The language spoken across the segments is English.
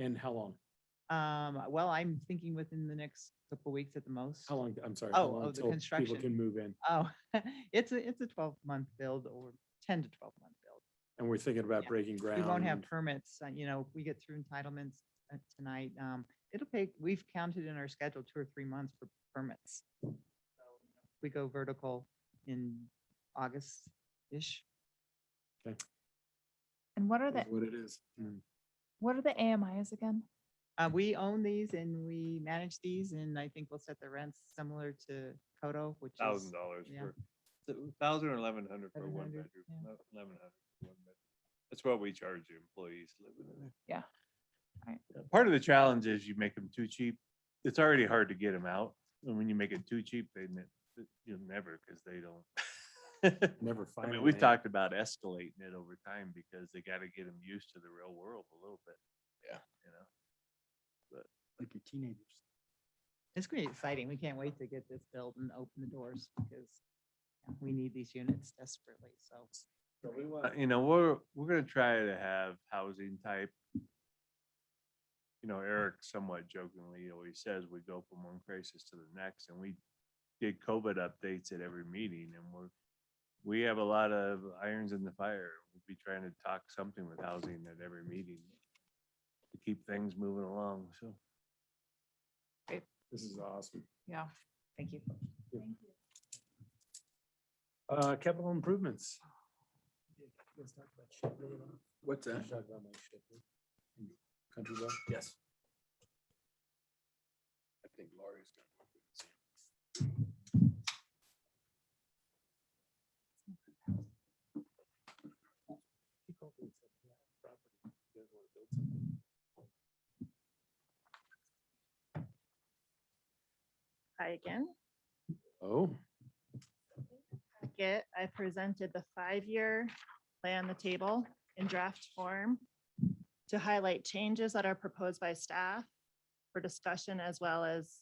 And how long? Um, well, I'm thinking within the next couple weeks at the most. How long, I'm sorry. how Oh, long oh, the till construction. People can move in. Oh, it's a, it's a twelve month build or ten to twelve month build. And we're thinking about Yeah. breaking ground. We won't have and- permits, uh, you know, if we get through entitlements uh, tonight. Um, it'll take, we've counted in our schedule two or three months for permits. So you know, if We go vertical in August-ish. And what are the, is What it is. Mm. what are the AMIs again? Uh, we own these and we manage these and I think we'll set the rents similar to Coto, which is. Thousand dollars yeah. for, thousand or eleven hundred for one 1100, bedroom, yeah. eleven hundred for one bedroom. That's what we charge the employees living in there. Yeah. Right. Yeah, Part of the challenge is you make them too cheap. It's already hard to get them out. And when you make it too cheap, they, ne- th- you'll never, because they don't. Never I find. mean, a we've way. talked about escalating it over time because they gotta get them used to the real world a little bit. Yeah. You know? Like your teenagers. It's gonna be exciting. We can't wait to get this built and open the doors because yeah, we need these units desperately, so. So we want, you know, we're, we're gonna try to have housing type. You know, Eric somewhat jokingly always says we go from one crisis to the next and we did COVID updates at every meeting and we're. We have a lot of irons in the fire. We'll be trying to talk something with housing at every meeting. To keep things moving along, so. This is awesome. Yeah. Thank you. Uh, capital improvements. What's that? Country Road. Yes. I think Laurie's gonna. Hi again. Oh, Get, I presented the five-year lay on the table in draft form to highlight changes that are proposed by staff for discussion as well as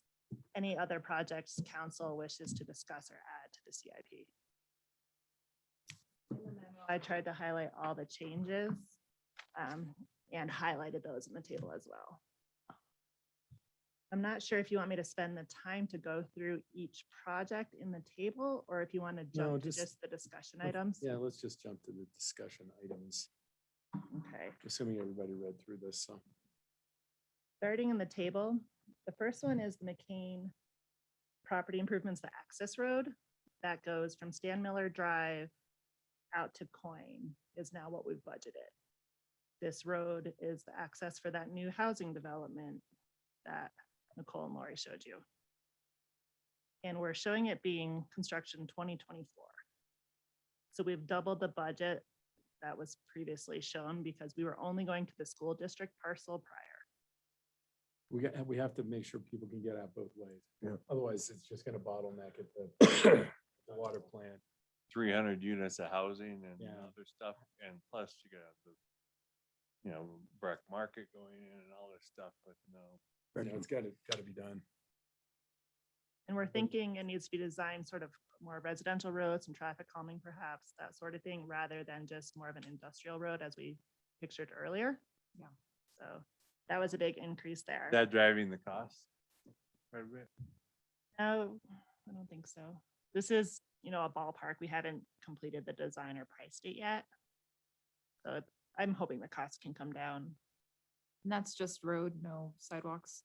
any other projects council wishes to discuss or add to the CIP. In the memo, I tried to highlight all the changes um, and highlighted those in the table as well. I'm not sure if you want me to spend the time to go through each project in the table or if you want to No, jump to just- just the discussion let's- items. yeah, let's just jump to the discussion items, Okay. assuming everybody read through this, so. starting in the table, the first one is the McCain property improvements, the access road that goes from Stan Miller Drive out to Coin is now what we've budgeted. This road is the access for that new housing development that Nicole and Lori showed you. And we're showing it being construction twenty twenty-four. So we've doubled the budget that was previously shown because we were only going to the school district parcel prior. We got, we have to make sure people can get out both ways. Otherwise, it's just gonna bottleneck at the the water plant. three hundred units of housing and Yeah. other stuff, and plus you got the, you know, Breck Market going in and all this stuff, but no. You know, It's gotta, gotta be done. And Mm-hmm. we're thinking it needs to be designed sort of more residential roads and traffic calming perhaps, that sort of thing, rather than just more of an industrial road as we pictured earlier. Yeah. So that was a big increase there. That driving the cost? Quite a bit. No, I don't think so. This is, you know, a ballpark. We haven't completed the design or priced it yet. So it- I'm hoping the cost can come down. And that's just road, no sidewalks.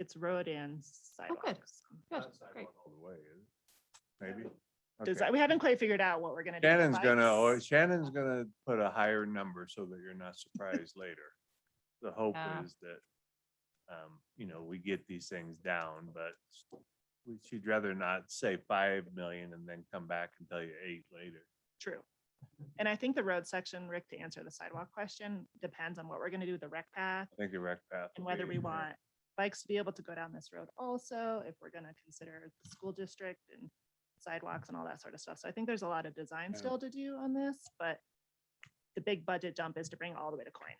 It's road and sidewalks. Good, Not sidewalk great. All the way, is it? Maybe. Okay. Design, we haven't quite figured out what we're gonna do. with Shannon's gonna, or bikes. Shannon's gonna put a higher number so that you're not surprised later. The hope Yeah. is that, um, you know, we get these things down, but we- she'd rather not say five million and then come back and tell you eight later. True. And I think the road section, Rick, to answer the sidewalk question, depends on what we're gonna do with the rec path I think the rec path. and will whether be we in there. want bikes to be able to go down this road also, if we're gonna consider the school district and sidewalks and all that sort of stuff. So I think there's a lot of design Yeah. still to do on this, but the big budget jump is to bring all the way to coin.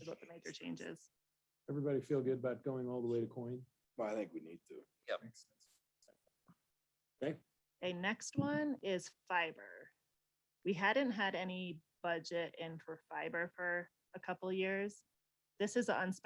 Is what the major change is. Everybody feel good about going all the way to coin? Well, I think we need to. A next one is fiber. We hadn't had any budget in for fiber for a couple years. This is an unspecified